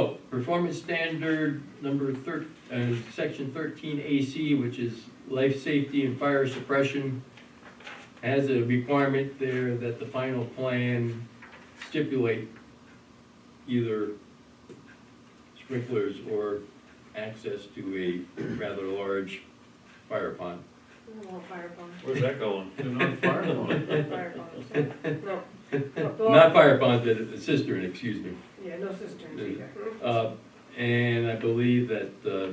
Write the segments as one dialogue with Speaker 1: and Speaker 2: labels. Speaker 1: Oh, Performance standard number thir, uh, section thirteen AC, which is life safety and fire suppression, has a requirement there that the final plan stipulate either sprinklers or access to a rather large fire pond.
Speaker 2: No fire pond,
Speaker 3: Where's that going?
Speaker 4: They're not firemen.
Speaker 2: no fire pond, no. Well,
Speaker 1: Not fire pond, but a cistern, excuse me.
Speaker 2: Yeah, no cisterns either.
Speaker 1: Uh, and I believe that, uh,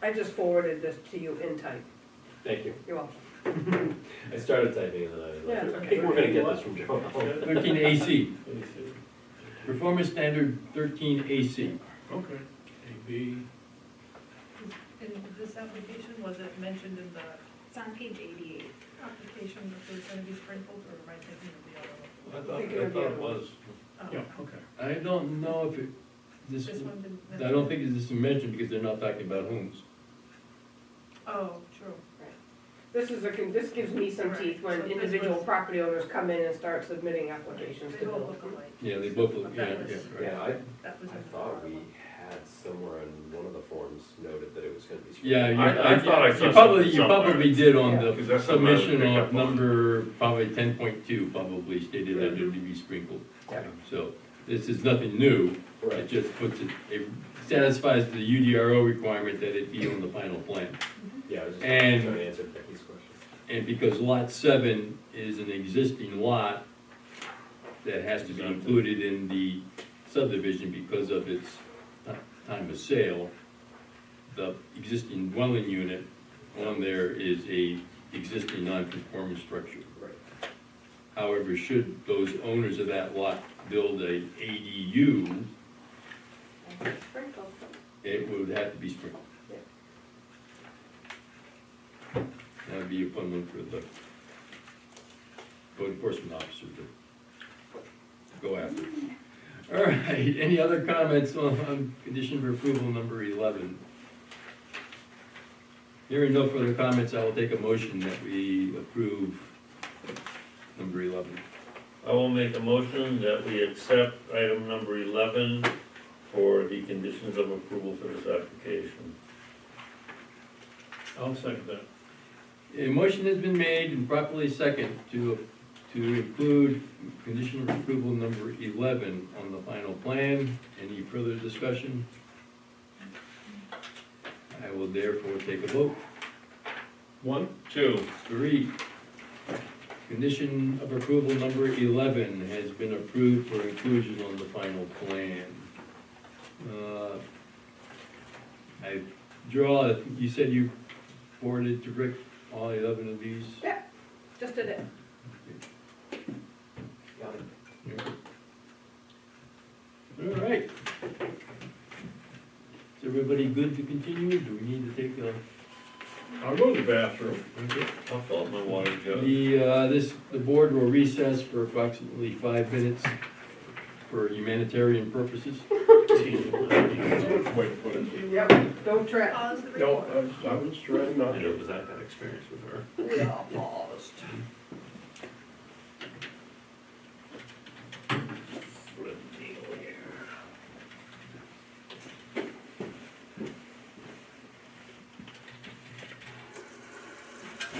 Speaker 2: I just forwarded this to you in type,
Speaker 3: Thank you.
Speaker 2: you're welcome.
Speaker 3: I started typing and then I was
Speaker 2: Yeah, it's
Speaker 3: like, I
Speaker 2: okay.
Speaker 3: think we're gonna get this from Joe.
Speaker 1: thirteen AC, performance standard thirteen AC.
Speaker 4: Okay. A, B,
Speaker 5: In this application, was it mentioned in the
Speaker 6: It's on page eighty-eight.
Speaker 5: application that there's gonna be sprinkled, or am I thinking of the other one?
Speaker 3: I thought, I thought it was.
Speaker 5: Oh,
Speaker 4: yeah,
Speaker 5: okay.
Speaker 4: okay.
Speaker 1: I don't know if it, this,
Speaker 5: This one didn't.
Speaker 1: I don't
Speaker 5: mention it.
Speaker 1: think this is mentioned because they're not talking about homes.
Speaker 5: Oh, true.
Speaker 2: This is a, con- this gives me some teeth when
Speaker 5: Right, so this
Speaker 2: individual
Speaker 5: was-
Speaker 2: property owners come in and start submitting applications
Speaker 5: They
Speaker 2: to
Speaker 5: all
Speaker 2: build.
Speaker 5: look alike.
Speaker 1: Yeah, they both, look- yeah,
Speaker 5: That was-
Speaker 1: yeah, right.
Speaker 3: Yeah, I,
Speaker 5: That was.
Speaker 3: I
Speaker 5: in the
Speaker 3: thought
Speaker 5: bottom
Speaker 3: we
Speaker 5: one.
Speaker 3: had somewhere on one of the forms noted that it was gonna be.
Speaker 1: Yeah, you,
Speaker 4: I- I thought I
Speaker 1: I,
Speaker 4: saw
Speaker 1: you probably,
Speaker 4: something
Speaker 1: you probably
Speaker 4: somewhere.
Speaker 1: did on
Speaker 2: Yeah.
Speaker 4: Because
Speaker 1: the
Speaker 4: that's something I would
Speaker 1: submission
Speaker 4: pick
Speaker 1: of
Speaker 4: up on.
Speaker 1: number, probably ten point two, probably stated that it would be sprinkled.
Speaker 3: Yeah.
Speaker 1: So, this is nothing new, it
Speaker 3: Right.
Speaker 1: just puts it, it satisfies the UDRO requirement that it be on the final plan.
Speaker 3: Yeah, I was just
Speaker 1: And-
Speaker 3: trying to answer Becky's question.
Speaker 1: And because lot seven is an existing lot that has to be
Speaker 4: Exactly.
Speaker 1: included in the subdivision because of its ti- time of sale, the existing dwelling unit on there is a existing non-conforming structure.
Speaker 3: Right.
Speaker 1: However, should those owners of that lot build a ADU,
Speaker 2: Sprinkle.
Speaker 1: it would have to be sprinkled.
Speaker 2: Yeah.
Speaker 1: That'd be a fun one for the code enforcement officer to go after. All right, any other comments on, on condition for approval number eleven? Hearing no further comments, I will take a motion that we approve number eleven.
Speaker 4: I will make a motion that we accept item number eleven for the conditions of approval for this application. I'll second that.
Speaker 1: A motion has been made and properly second to, to include condition of approval number eleven on the final plan. Any further discussion? I will therefore take a vote.
Speaker 4: One, two.
Speaker 1: Three, condition of approval number eleven has been approved for inclusion on the final plan. Uh, I draw, you said you forwarded to Rick all eleven of these?
Speaker 2: Just did it.
Speaker 3: Got it.
Speaker 1: All right. Is everybody good to continue? Do we need to take a?
Speaker 4: I'll go to the bathroom. I'll fill up my water jug.
Speaker 1: The, uh, this, the board will recess for approximately five minutes for humanitarian purposes.
Speaker 4: Wait, put it.
Speaker 2: Yep, don't trip.
Speaker 5: Pause Oh, the
Speaker 4: No,
Speaker 5: recording.
Speaker 4: I was, I was trying not
Speaker 3: I know,
Speaker 4: to.
Speaker 3: because I've had experience with her.
Speaker 2: We all paused.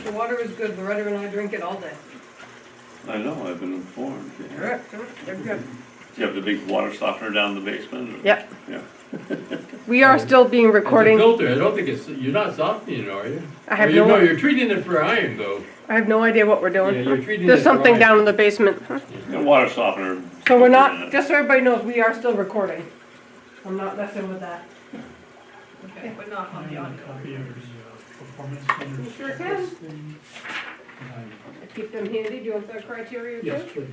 Speaker 2: The water is good, Loretta and I drink it all day.
Speaker 7: I know, I've been informed.
Speaker 2: All
Speaker 7: yeah.
Speaker 2: right, they're good.
Speaker 7: Do you have the big water softener down in the basement? or-
Speaker 8: Yep.
Speaker 7: Yeah.
Speaker 8: We are still being
Speaker 1: It's a
Speaker 8: recording.
Speaker 1: Filter, I don't think it's, you're not softening it, are you?
Speaker 8: I have
Speaker 1: Or Oh, you-
Speaker 8: no-
Speaker 1: You're treating it for iron though.
Speaker 8: I have no idea what we're
Speaker 1: Yeah, you're
Speaker 8: doing.
Speaker 1: treating it
Speaker 8: There's
Speaker 1: for
Speaker 8: something
Speaker 1: iron.
Speaker 8: down in the basement.
Speaker 7: The water softener.
Speaker 8: So we're not, just so everybody knows, we are still recording. I'm not messing with that.
Speaker 5: Okay, but not on the audio.
Speaker 9: Copy of the uh, performance
Speaker 2: You
Speaker 9: standards.
Speaker 2: sure can.
Speaker 9: Thing. I-
Speaker 2: Keep them handy, do you want the criteria too?
Speaker 9: Yes, please.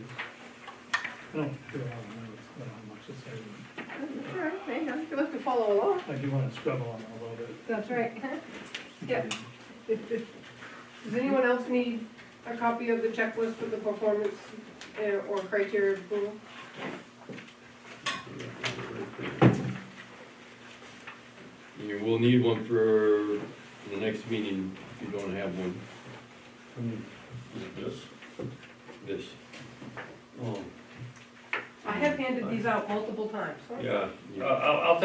Speaker 9: I don't feel how notes, but how much it's saving.
Speaker 2: All right, hang on, you have to follow along.
Speaker 9: I do want to scribble on it a little bit.
Speaker 2: That's right. Yeah. Does anyone else need a copy of the checklist for the performance uh, or criteria of approval?
Speaker 1: You will need one for the next meeting if you don't have one,
Speaker 4: Yes.
Speaker 1: this.
Speaker 4: Oh.
Speaker 2: I
Speaker 10: have handed these out multiple times.
Speaker 4: Uh,
Speaker 2: Yeah, I- I'll, I'll